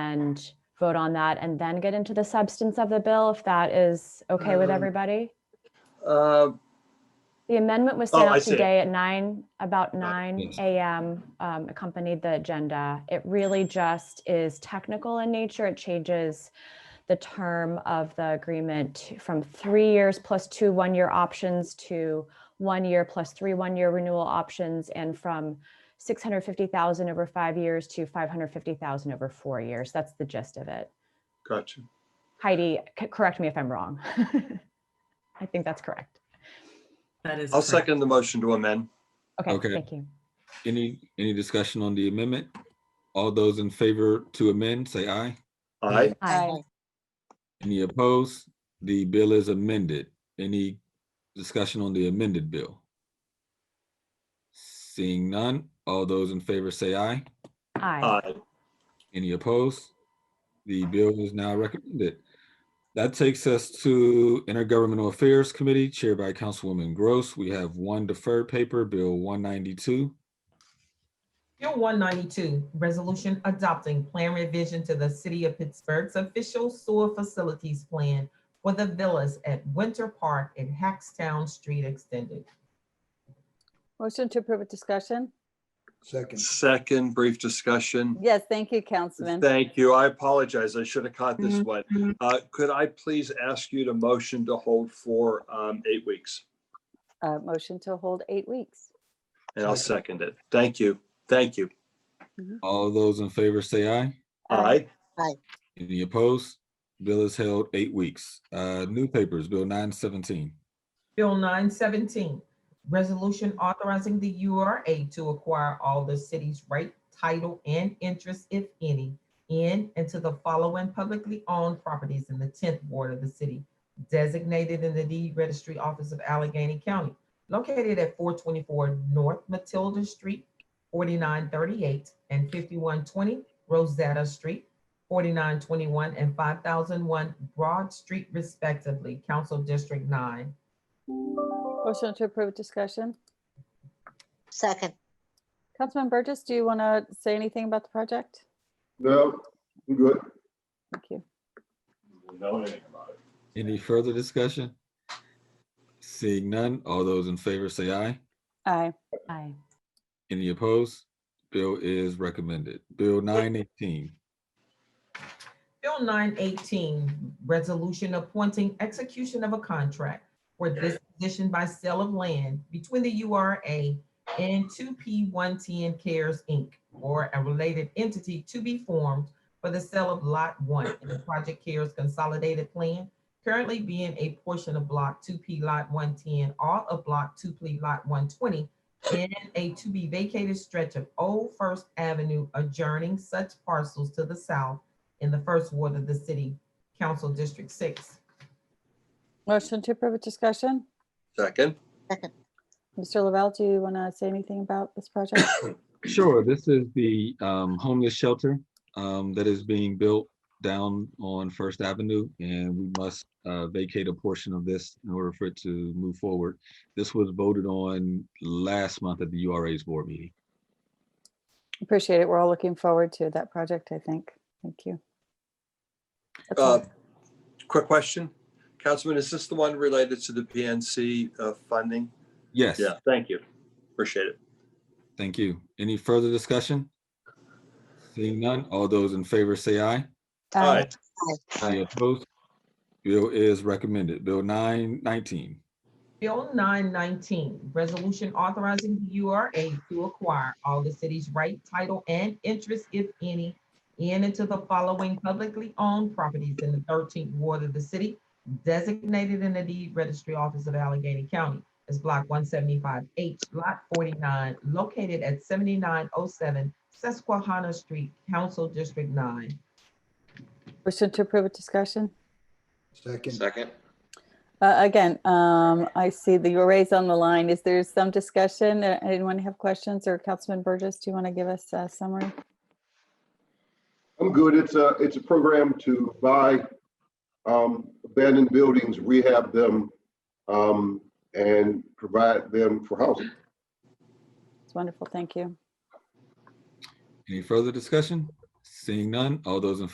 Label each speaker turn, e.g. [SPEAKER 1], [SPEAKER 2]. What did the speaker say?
[SPEAKER 1] amend, vote on that, and then get into the substance of the bill, if that is okay with
[SPEAKER 2] Um,
[SPEAKER 1] everybody?
[SPEAKER 2] Uh,
[SPEAKER 1] The amendment was
[SPEAKER 2] Oh,
[SPEAKER 1] sent
[SPEAKER 2] I
[SPEAKER 1] out
[SPEAKER 2] see it.
[SPEAKER 1] today at nine, about nine
[SPEAKER 2] yes.
[SPEAKER 1] AM, um, accompanied the agenda. It really just is technical in nature. It changes the term of the agreement from three years plus two one-year options to one year plus three one-year renewal options and from six hundred fifty thousand over five years to five hundred fifty thousand over four years. That's the gist of it.
[SPEAKER 2] gotcha.
[SPEAKER 1] Heidi, c- correct me if I'm wrong. I think that's correct.
[SPEAKER 3] That is.
[SPEAKER 2] I'll
[SPEAKER 3] correct.
[SPEAKER 2] second the motion to amend.
[SPEAKER 1] Okay,
[SPEAKER 4] Okay.
[SPEAKER 1] thank you.
[SPEAKER 4] Any, any discussion on the amendment? All those in favor to amend, say aye.
[SPEAKER 2] Aye.
[SPEAKER 1] Aye.
[SPEAKER 4] Any opposed? The bill is amended. Any discussion on the amended bill? Seeing none, all those in favor say aye.
[SPEAKER 1] Aye.
[SPEAKER 2] Aye.
[SPEAKER 4] Any opposed? The bill is now recommended. That takes us to Intergovernmental Affairs Committee chaired by Councilwoman Gross. We have one deferred paper, Bill one ninety-two.
[SPEAKER 5] Bill one ninety-two, resolution adopting plan revision to the city of Pittsburgh's official sewer facilities plan for the villas at Winter Park and Hackstown Street Extended.
[SPEAKER 6] Motion to approve with discussion?
[SPEAKER 7] Second,
[SPEAKER 2] Second brief discussion.
[SPEAKER 6] Yes, thank you, Councilman.
[SPEAKER 2] Thank you. I apologize. I should have caught this one.
[SPEAKER 6] Mm-hmm.
[SPEAKER 2] Uh, could I please ask you to motion to hold for, um, eight weeks?
[SPEAKER 6] Uh, motion to hold eight weeks.
[SPEAKER 2] And I'll second it. Thank you. Thank you.
[SPEAKER 4] All those in favor say aye.
[SPEAKER 2] Aye.
[SPEAKER 4] Any opposed? Bill is held eight weeks. Uh, new papers, Bill nine seventeen.
[SPEAKER 5] Bill nine seventeen, resolution authorizing the URA to acquire all the city's right, title, and interest, if any, in and to the following publicly owned properties in the tenth ward of the city, designated in the deed registry office of Allegheny County, located at four twenty-four North Matilda Street, forty-nine thirty-eight and fifty-one twenty Rosetta Street, forty-nine twenty-one and five thousand one Broad Street respectively, Council District Nine.
[SPEAKER 6] Motion to approve with discussion?
[SPEAKER 8] Second,
[SPEAKER 6] Councilman Burgess, do you want to say anything about the project?
[SPEAKER 9] No, I'm good.
[SPEAKER 6] Thank you.
[SPEAKER 4] Any further discussion? Seeing none, all those in favor say aye.
[SPEAKER 6] Aye.
[SPEAKER 1] Aye.
[SPEAKER 4] Any opposed? Bill is recommended. Bill nine eighteen.
[SPEAKER 5] Bill nine eighteen, resolution appointing execution of a contract for disposition by sale of land between the U R A and two P one ten Cares Inc. or a related entity to be formed for the sale of lot one in the Project Cares Consolidated Plan, currently being a portion of block two P lot one ten, all of block two P lot one twenty, and a to be vacated stretch of Old First Avenue adjourning such parcels to the south in the first ward of the city, council district six.
[SPEAKER 6] Motion to approve with discussion?
[SPEAKER 2] Second.
[SPEAKER 6] Mr. Lavelle, do you want to say anything about this project?
[SPEAKER 4] Sure, this is the um, homeless shelter um, that is being built down on First Avenue, and we must uh, vacate a portion of this in order for it to move forward. This was voted on last month at the URA's board meeting.
[SPEAKER 6] Appreciate it. We're all looking forward to that project, I think. Thank you. That's all.
[SPEAKER 2] Uh, quick question. Councilman, is this the one related to the PNC, uh, funding?
[SPEAKER 4] Yes.
[SPEAKER 2] Yeah, thank you. Appreciate it.
[SPEAKER 4] Thank you. Any further discussion? Seeing none, all those in favor say aye.
[SPEAKER 6] Aye.
[SPEAKER 4] Any opposed? Bill is recommended. Bill nine nineteen.
[SPEAKER 5] Bill nine nineteen, resolution authorizing the URA to acquire all the city's right, title, and interest, if any, in and to the following publicly owned properties in the thirteenth ward of the city, designated in the deed registry office of Allegheny County as block one seventy-five H, lot forty-nine, located at seventy-nine oh seven Susquehanna Street, council district nine.
[SPEAKER 6] Motion to approve with discussion?
[SPEAKER 7] second,
[SPEAKER 2] Second.
[SPEAKER 6] Uh, Again, um, I see the arrays on the line. Is there some discussion? Uh, Anyone have questions? Or Councilman Burgess, do you want to give us a summary?
[SPEAKER 9] I'm good. It's a, it's a program to buy um, abandoned buildings, rehab them, um, and provide them for housing.
[SPEAKER 6] It's wonderful. Thank you.
[SPEAKER 4] Any further discussion? Seeing none, all those in